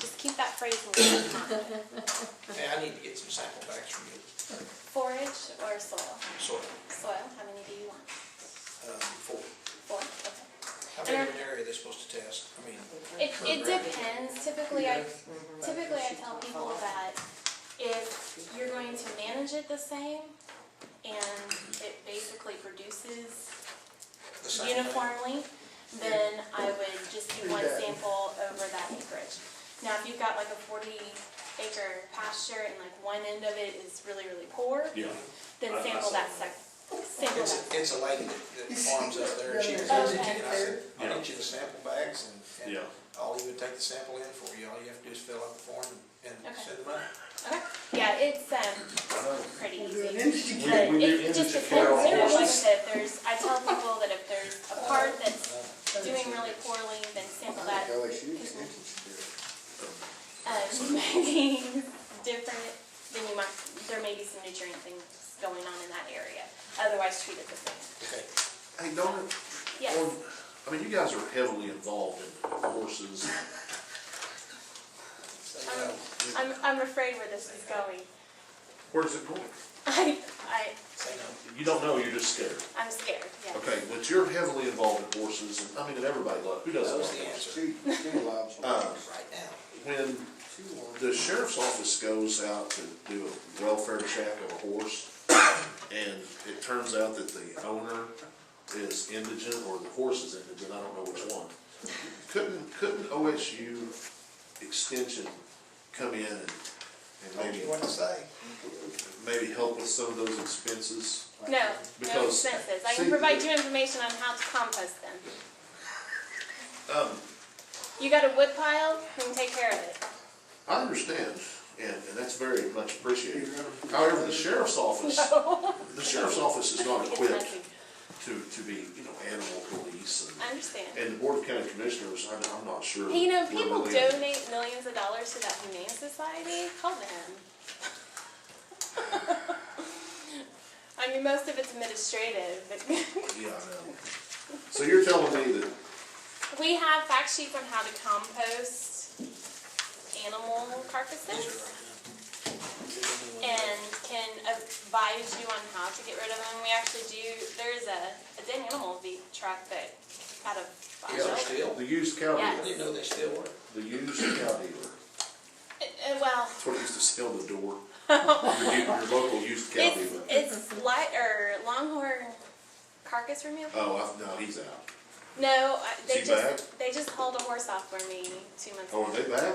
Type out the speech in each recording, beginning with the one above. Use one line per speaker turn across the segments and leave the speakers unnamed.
that phrase a little bit.
Hey, I need to get some sample bags from you,
Forage or soil?
soil,
Soil, how many do you want?
um, for,
Four, okay.
how big of an area are they supposed to test? I mean,
It, it depends, typically I, typically I tell people that if you're going to manage it the same and it basically produces
the same thing.
uniformly, then I would just do one sample over that acreage. Now, if you've got like a forty acre pasture and like one end of it is really, really poor,
Yeah.
then
I- I
sample
saw
that second, sample that.
It's, it's a lady that, that farms up there, and she was
Okay.
hesitating, I said, I'll
Yeah.
get you the sample bags, and, and
Yeah.
I'll even take the sample in for you, all you have to do is fill out the form and,
Okay.
and send them out.
Okay, yeah, it's, um, pretty easy.
We-
But
we do
it just
image
depends, you
apparel
know, like I
horses.
said, there's, I tell people that if there's a part that's doing really poorly, then sample that. Um, maybe different, then you might, there may be some nutrient things going on in that area, otherwise treat it the same.
Okay,
Hey, don't, it-
Yes,
on- I mean, you guys are heavily involved in horses.
so,
I'm,
uh,
Um, I'm, I'm afraid where this is going.
Where does it going?
I, I,
say no.
You don't know, you're just scared.
I'm scared, yeah.
Okay, but you're heavily involved in horses, and I mean, and everybody loves, who
That
doesn't
was
love
the
horses?
answer,
Two, two lives.
Uh,
right now.
When
Two lives.
the sheriff's office goes out to do a welfare check of a horse, and it turns out that the owner is indigent, or the horse is indigent, I don't know which one. Couldn't, couldn't OSU extension come in and and
Told
maybe,
you what to say.
maybe help with some of those expenses?
No, no
Because-
expenses. I can
see-
provide you information on how to compost them.
Um,
You got a wood pile, we can take care of it.
I understand, and, and that's very much appreciated. However, the sheriff's office, the sheriff's office is not
It's
equipped
messy.
to, to be, you know, animal police
I
and,
understand.
and the Board of County Commissioners, I'm, I'm not sure.
Hey, You know,
where
people
we land.
donate millions of dollars to that humane society. Call them. I mean, most of it's administrative. but
Yeah, I know. So you're telling me that,
we have fact sheets on how to compost animal carcasses. and can advise you on how to get rid of them. We actually do, there's a, a dead animal v- truck that out of
Is there
Bonneville.
still?
the used cow
I
Yes.
dealer,
didn't know they still were.
the used cow dealer,
Uh, uh, Well,
that's what used to sell the door. Your, u- your local used cow
it's,
dealer.
it's light, or longhorn carcass removal?
Oh, I, no, he's out.
No, I- they
Is he
just, they just hauled a horse off for me two months
Oh, are
ago.
they back?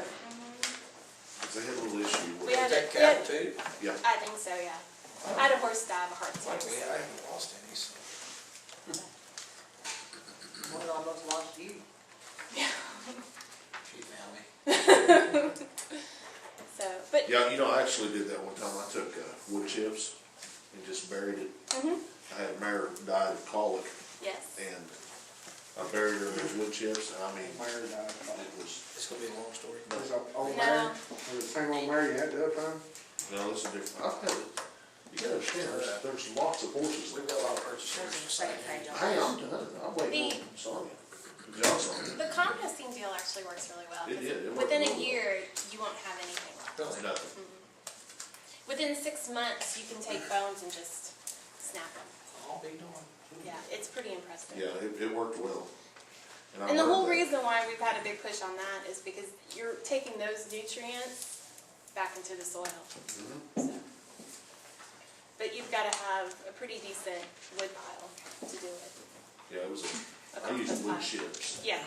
'Cause they had a little issue with
Mm-hmm. We
it.
had
That
a, we
cattle
had-
too?
Yeah,
I think so, yeah. I had a horse die of a heart
Like, we,
attack.
I haven't lost any, so.
One almost lost you.
She found me.
So, but,
yeah, you know, I actually did that one time, I took, uh, wood chips and just buried it.
Mhm.
I had a mare die of colic,
yes.
and I buried her in those wood chips, and I mean,
Mary died.
it was,
It's gonna be a long story.
There's a uh, old
No.
Mary, there's the same old Mary you had the other time.
no, this is different. I've had it, you gotta understand, there's, there's lots of horses
We've
like
got a lot of purchasers.
Hey, I'm done, I'm waiting on Sonya, John's on
The composting deal actually works really well.
It did, it
'cause
worked
Within a
really well.
year, you won't have anything left.
it, nothing.
Within six months, you can take bones and just snap them.
I'll be doing.
Yeah, it's pretty impressive.
Yeah, it, it worked well. I
And the whole
learned
reason why we've had a big push on that is because you're taking those nutrients back into the soil.
Mm-hmm.
So. But you've got to have a pretty decent wood pile to do it.
that- Yeah, it was, a- I used wood chips
Yeah,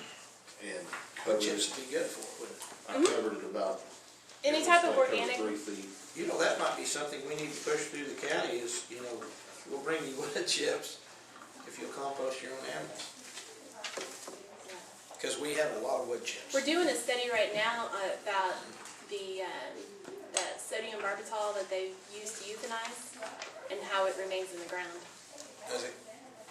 and
But
covered it.
chips would be good for it, wouldn't it?
I covered it about.
Mm-hmm. any
it
type
was
of
like over
organic.
Three feet.
You know, that might be something we need to push through the county is, you know, we'll bring you wood chips if you'll compost your own animals. Cause we have a lot of wood chips.
We're doing a study right now uh, about the, um, the sodium barbital that they use to euthanize and how it remains in the ground.
Does it,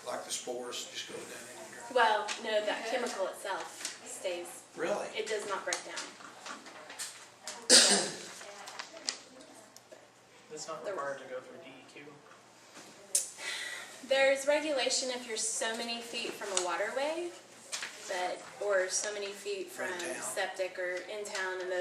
like the spores just go down in here?
Well, no, that chemical itself stays.
Really?
It does not break down.
It's not required to go through E DEQ.
There's regulation if you're so many feet from a waterway, but or so many feet from
From town.
septic or in town, and those